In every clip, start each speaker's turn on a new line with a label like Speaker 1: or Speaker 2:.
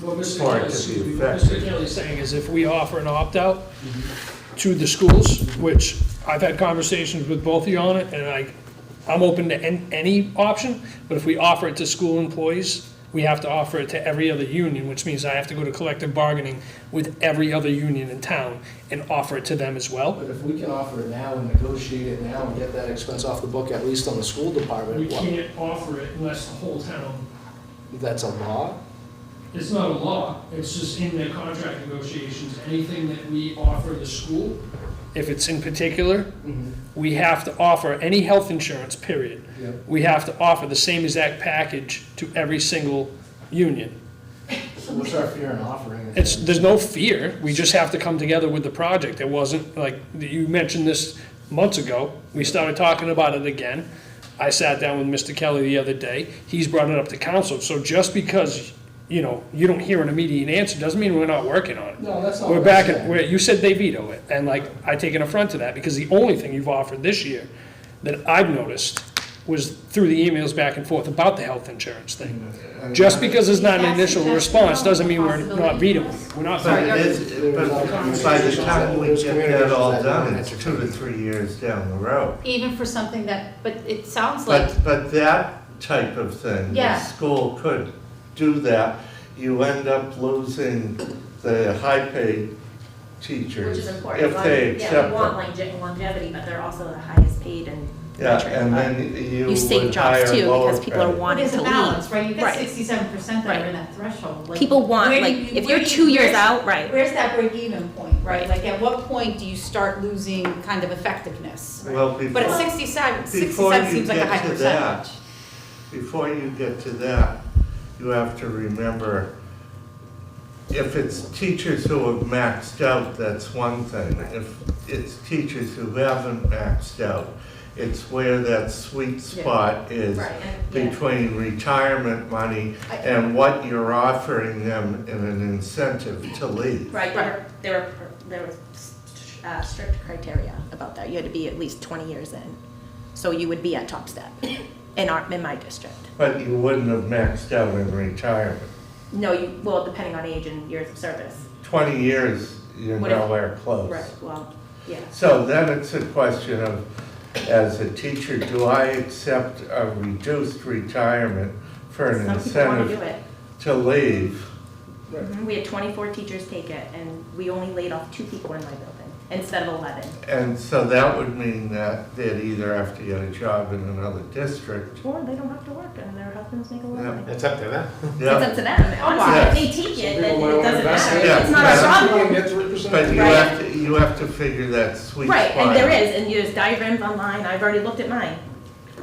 Speaker 1: What Mr.
Speaker 2: Or
Speaker 1: Kelly-
Speaker 2: it could be
Speaker 1: excuse me, what
Speaker 2: effective.
Speaker 1: Mr. Kelly's saying is if we offer an opt-out to the schools, which I've had conversations with both of you on it, and I, I'm open to an- any option, but if we offer it to school employees, we have to offer it to every other union, which means I have to go to collective bargaining with every other union in town and offer it to them as well.
Speaker 3: But if we can offer it now and negotiate it now and get that expense off the book, at least on the school
Speaker 1: We
Speaker 3: department, what-
Speaker 1: can't offer it unless the whole town,
Speaker 3: that's a law?
Speaker 1: it's not a law, it's just in the contract negotiations, anything that we offer the school. If it's in particular, we have to offer any health insurance, period.
Speaker 3: Yep.
Speaker 1: We have to offer the same exact package to every single union.
Speaker 3: What's our fear in offering it?
Speaker 1: It's, there's no fear, we just have to come together with the project. It wasn't, like, you mentioned this months ago, we started talking about it again. I sat down with Mr. Kelly the other day, he's brought it up to council, so just because, you know, you don't hear an immediate answer, doesn't mean we're not working on it.
Speaker 3: No, that's not. what
Speaker 1: We're
Speaker 3: I'm
Speaker 1: back,
Speaker 3: saying.
Speaker 1: at- where you said they veto it, and like, I take an affront to that, because the only thing you've offered this year that I've noticed was through the emails back and forth about the health insurance thing. Just because it's not an initial responce, doesn't mean we're not vetoing, it. we're not.
Speaker 2: But
Speaker 1: vetoing
Speaker 2: it is, but by the time we get that all done, it's two to three years down the road.
Speaker 4: Even for something that, but it sounds like,
Speaker 2: But, but that type of thing, the
Speaker 4: Yeah.
Speaker 2: school could do that. You end up losing the high-paid
Speaker 5: Which
Speaker 2: teachers
Speaker 5: is important.
Speaker 2: if they
Speaker 5: Like, yeah,
Speaker 2: accept
Speaker 5: We want
Speaker 2: them.
Speaker 5: longe- longevity, but they're also the highest paid and.
Speaker 2: Yeah, and then you
Speaker 6: You save
Speaker 2: would
Speaker 6: jobs too,
Speaker 2: hire
Speaker 6: because people are
Speaker 4: what
Speaker 2: lower-paid.
Speaker 6: wanting
Speaker 4: is
Speaker 6: to
Speaker 4: a balance,
Speaker 6: leave.
Speaker 4: right? You've got
Speaker 6: Right.
Speaker 4: sixty-seven percent that are in that threshold. like-
Speaker 6: People want,
Speaker 5: Where do
Speaker 6: like,
Speaker 5: you-
Speaker 6: if
Speaker 5: where
Speaker 6: you're
Speaker 5: do you-
Speaker 6: two years
Speaker 5: where's-
Speaker 6: out, right,
Speaker 4: Where's that break-even point, right? Like, at what point do you start losing kind of effectiveness?
Speaker 2: Well,
Speaker 4: But at
Speaker 2: before,
Speaker 4: sixty-seven,
Speaker 2: before
Speaker 4: sixty-seven
Speaker 2: you
Speaker 4: seems like a
Speaker 2: get
Speaker 4: high
Speaker 2: to
Speaker 4: percentage.
Speaker 2: that, before you get to that, you have to remember, if it's teachers who have maxed out, that's one thing. If it's teachers who haven't maxed out, it's where that sweet spot is
Speaker 5: Right, and- yeah.
Speaker 2: between retirement money
Speaker 4: I-
Speaker 2: and what you're offering them in an incentive to leave.
Speaker 5: Right,
Speaker 6: Right.
Speaker 5: there, there were, there were uh, strict criteria about that. You had to be at least twenty years in.
Speaker 6: so you would be at top step in our, in my district.
Speaker 2: But you wouldn't have maxed out in retirement.
Speaker 5: No, you, well, depending on age and years of service.
Speaker 2: Twenty years, you're
Speaker 5: What if-
Speaker 2: nowhere close.
Speaker 5: Right, well, yeah.
Speaker 2: So then it's a question of, as a teacher, do I accept a reduced retirement for an
Speaker 5: Some people wanna do
Speaker 2: incentive
Speaker 5: it.
Speaker 2: to leave?
Speaker 5: We had twenty-four teachers take it and we only laid off two people in my building instead of eleven.
Speaker 2: And so that would mean that they'd either have to get a job in another district.
Speaker 5: Or they don't have to work and their husbands make a lot of money.
Speaker 7: It's up to them.
Speaker 5: It's
Speaker 2: Yeah,
Speaker 5: up to them. Honestly, if they take it, then it doesn't matter.
Speaker 2: it.
Speaker 5: It's not
Speaker 2: Yeah.
Speaker 5: our problem.
Speaker 3: People get three percent.
Speaker 2: but you
Speaker 5: Right.
Speaker 2: have to, you have to figure that sweet spot.
Speaker 5: Right, and there is, and there's diagrams online, I've already looked at mine.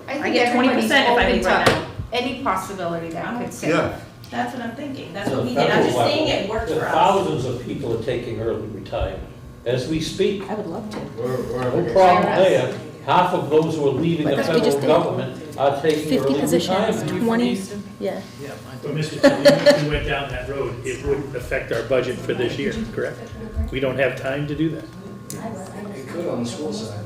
Speaker 5: I
Speaker 4: think
Speaker 5: get 20% if I
Speaker 4: everybody's
Speaker 5: leave right
Speaker 4: open to
Speaker 5: now.
Speaker 4: Any possibility that could sit.
Speaker 2: Yeah,
Speaker 5: That's what I'm thinking, that's
Speaker 8: So
Speaker 5: what we did, I'm just
Speaker 8: federal
Speaker 5: saying
Speaker 8: level,
Speaker 5: it worked
Speaker 8: the
Speaker 5: for us.
Speaker 8: Thousands of people are taking early retirement. As we speak,
Speaker 6: I would love to.
Speaker 7: We're- we're-
Speaker 8: no problem
Speaker 4: IRS.
Speaker 8: there. Half of those who are leaving the
Speaker 6: Because we just
Speaker 8: federal
Speaker 6: did
Speaker 8: government are taking
Speaker 6: 50
Speaker 8: early
Speaker 6: positions,
Speaker 8: retirement.
Speaker 6: 20, yeah.
Speaker 9: But Mr. Kelly, if we went down that road, it wouldn't affect our budget for this year, correct? We don't have time to do that.
Speaker 3: It could on the school side.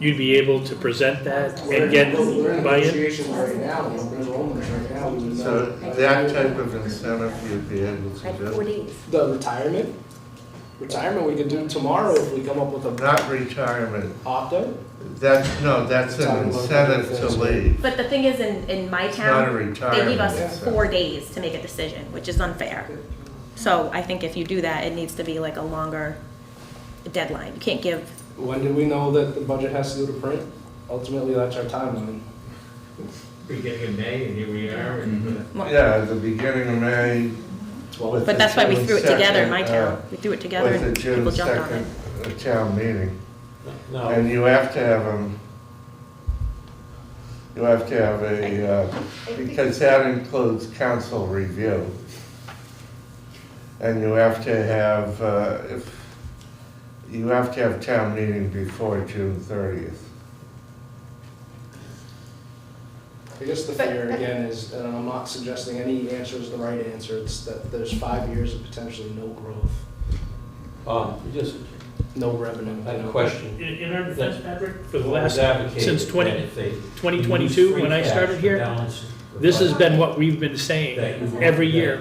Speaker 9: You'd be able to present that
Speaker 3: We're in-
Speaker 9: and get
Speaker 3: We're in
Speaker 9: buy-in?
Speaker 3: negotiations right now, we're enrollment right now. we would not-
Speaker 2: so that type of incentive you'd be able
Speaker 5: I
Speaker 2: to
Speaker 5: had four
Speaker 2: do.
Speaker 5: days.
Speaker 3: The retirement? Retirement, we could do tomorrow if we come up with a
Speaker 2: Not retirement,
Speaker 3: opt-out.
Speaker 2: that's, no, that's an incentive to leave,
Speaker 5: But the thing is, in, in my
Speaker 2: it's not a
Speaker 5: town,
Speaker 2: retirement.
Speaker 5: they give us
Speaker 2: incentive.
Speaker 5: four days to make a decision, which is unfair. So I think if you do that, it needs to be like a longer deadline, you can't give,
Speaker 3: When do we know that the budget has to go to print? Ultimately, that's our timeline.
Speaker 7: Beginning of May, and here we are, and. uh,
Speaker 2: Yeah, at the beginning of May. with
Speaker 5: but
Speaker 2: the
Speaker 5: that's why we
Speaker 2: June
Speaker 5: threw it together in my
Speaker 2: second, uh,
Speaker 5: town, we threw it together
Speaker 2: With the
Speaker 5: and
Speaker 2: June
Speaker 5: people jumped on it.
Speaker 2: second uh, town meeting,
Speaker 8: Now,
Speaker 2: and you have to have them, you have to have a, uh, because that includes council review. And you have to have, uh, if, you have to have town meeting before June thirtieth.
Speaker 3: I guess the fear again is, and I'm not suggesting any answer is the right answer, it's that there's five years of potentially no growth,
Speaker 8: um, you just,
Speaker 3: no revenue.
Speaker 8: I have a
Speaker 9: In,
Speaker 8: question.
Speaker 9: in our defense, Patrick, for the
Speaker 8: What was
Speaker 9: last,
Speaker 8: advocated
Speaker 9: since
Speaker 8: that
Speaker 9: 20
Speaker 8: if they use
Speaker 9: 2022,
Speaker 8: free
Speaker 9: when I
Speaker 8: cash
Speaker 9: started
Speaker 8: to
Speaker 9: here,
Speaker 8: balance the
Speaker 9: this has
Speaker 8: budget,
Speaker 9: been what we've been
Speaker 8: that you
Speaker 9: saying
Speaker 8: want
Speaker 9: every
Speaker 8: that
Speaker 9: year.